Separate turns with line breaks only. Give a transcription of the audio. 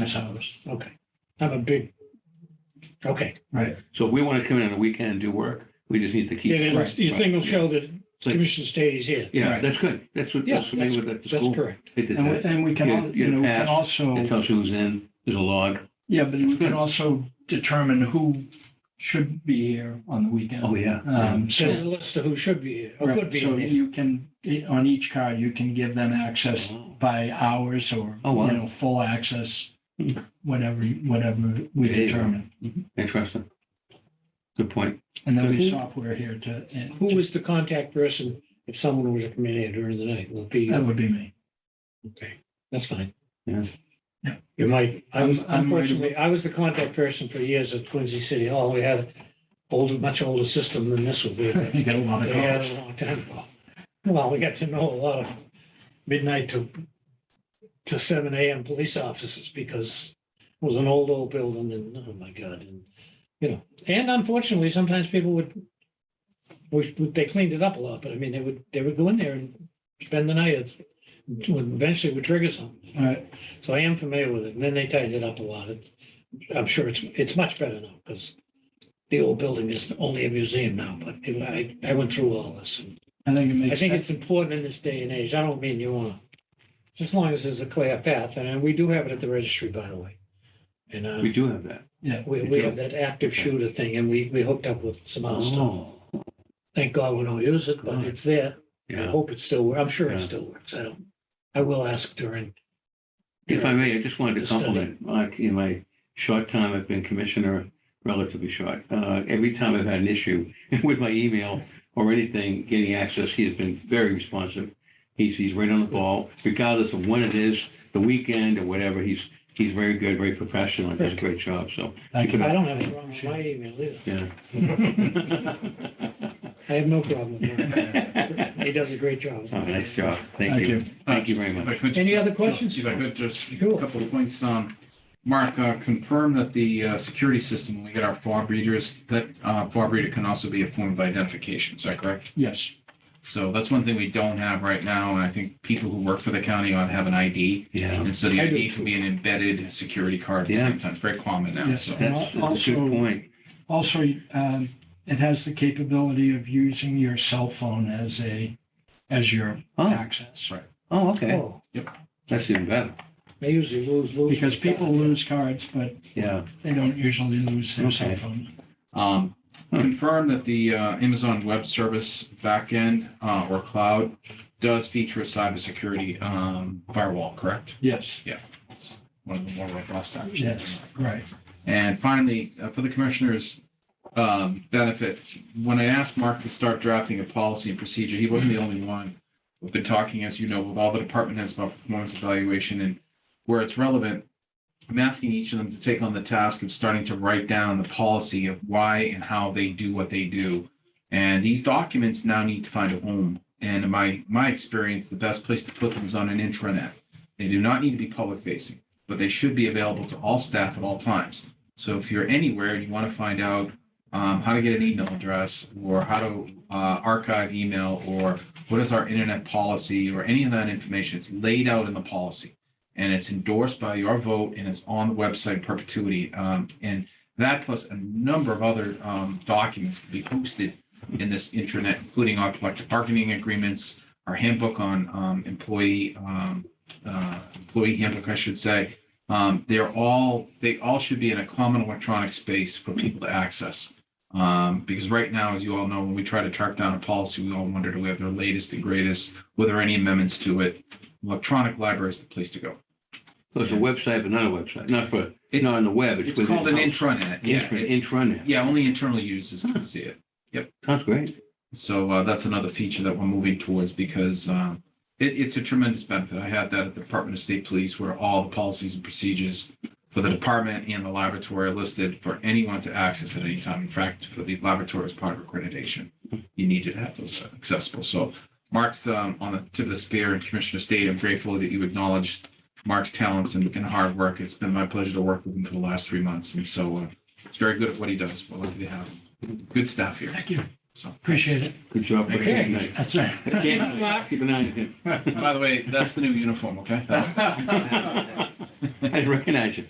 That's how it was. Okay. I'm a big, okay.
So if we want to come in on a weekend and do work, we just need to keep.
Yeah, then
right,
Your thing will show that
It's like-
Commissioner State is here.
Yeah,
Right.
that's good. That's what,
Yeah,
that's what they would at the
That's
school.
correct.
They did
And we,
that.
and we can, al-
You-
you know, we
you
can
pass.
also,
It tells who's in, Hmm. there's a log.
yeah, but
It's
we
good.
can also determine who should be here on the
Oh,
weekend.
yeah.
Um, so,
Says a list of who should be here or could
right,
be
so
here.
you can, on each card, you can give them access by hours or,
Oh,
you
wow.
know, full access,
Hmm.
whatever, whatever we
Yeah, yeah.
determine.
Interesting. Good point.
And there'll be
Who-
software here to, and
Who is the contact person if someone was to come in here during the night? Will it be,
that would be me.
okay, that's fine.
Yeah.
Um, Yeah.
You might, I was,
I'm- I'm ready.
unfortunately, I was the contact person for years at Quincy City Hall. We had older, much older system than this would be. but-
You get a lot of
They had
calls.
a long time ago. Well, we got to know a lot of midnight to, to seven AM police officers because it was an old, old building and, oh my God, and, you know, and unfortunately, sometimes people would, we, they cleaned it up a lot, but I mean, they would, they would go in there and spend the night. It's, would- eventually would trigger something.
All right,
So I am familiar with it. And then they tightened it up a lot. It- I'm sure it's, it's much better now because the old building is only a museum now, but it- I, I went through all this.
I think it
I
makes
think it's
sense.
important in this day and age. I don't mean you want to, just as long as there's a clear path. And we do have it at the registry, by the way. And uh,
We do have that.
we, we have that active shooter thing and we, we hooked up with some other stuff.
Oh,
Thank God we don't use it, but it's there. I
yeah.
hope it still, works. I'm sure
Yeah.
it still works. I don't, I will ask during.
If I may, I just wanted to
The study.
compliment, like, in my short time I've been commissioner, relatively short, uh, every time I've had an issue with my email or anything getting access, he has been very responsive. He's, he's right on the ball, regardless of when it is, the weekend or whatever, he's, he's very good, very professional, and does a great job, so,
Thank you.
I don't have a problem with my email either.
yeah.
I have no problem with that.
Oh,
He does a great job.
Nice job, thank you. Thank you very much.
If I could just-
Any other questions?
If I could, just a
Sure.
couple of points. Um, Mark, uh, confirm that the uh, security system, when we get our fob readers, that uh, fob reader can also be a form of identification, is that correct?
Yes,
So that's one thing we don't have right now, and I think people who work for the county ought to have an ID.
Yeah,
And so the
I do
ID can be an embedded security card at the
Yeah.
same time. It's very common now,
Yeah.
so.
that's that's a
Also-
good point,
Also, um, it has the capability of using your cell phone as a, as your
Oh.
access.
Right.
oh, okay,
Oh,
that's even better,
I usually lose, lose.
Because people lose cards, but
yeah,
they don't usually lose their cell
Okay.
phone.
Um,
Hmm.
confirm that the uh, Amazon Web Service backend uh, or cloud does feature a cybersecurity um, firewall, correct?
Yes,
It's one of the more robust options.
yes, right.
And finally, uh, for the commissioner's um, benefit, when I asked Mark to start drafting a policy and procedure, he wasn't the only one. We've been talking, as you know, with all the department heads about performance evaluation and where it's relevant. I'm asking each of them to take on the task of starting to write down the policy of why and how they do what they do. And these documents now need to find a home. And in my, my experience, the best place to put them is on an intranet. They do not need to be public facing, but they should be available to all staff at all times. So if you're anywhere and you want to find out um, how to get an email address or how to uh, archive email or what is our internet policy or any of that information, it's laid out in the policy and it's endorsed by your vote and it's on the website in perpetuity. Um, and that plus a number of other um, documents can be hosted in this intranet, including our collective bargaining agreements, our handbook on um, employee um, uh, employee handbook, I should say, um, they're all, they all should be in a common electronic space for people to access. Um, because right now, as you all know, when we try to track down a policy, we all wonder, do we have the latest and greatest? Were there any amendments to it? Electronic library is the place to go.
so it's a website, but not a website, not for,
It's,
not on the web, it's
it's
within.
called an intranet. Yeah,
Intranet,
it-
intranet.
yeah, only internal users can see it.
Sounds great,
So uh, that's another feature that we're moving towards because um, it, it's a tremendous benefit. I had that at the Department of State Police where all the policies and procedures for the department and the laboratory are listed for anyone to access at any time. In fact, for the laboratory as part of accreditation, you needed to have those accessible. So Mark's um, on the tip of the spear and Commissioner State, I'm grateful that you acknowledged Mark's talents and, and hard work. It's been my pleasure to work with him for the last three months. And so uh, it's very good at what he does. We're lucky to have him. good staff here.
Thank you.
So.
Appreciate it.
Good job. Rick.
Okay.
Nice.
That's right.
Can't- Keep an eye on him.
By the way, that's the new uniform, okay?
I didn't recognize you.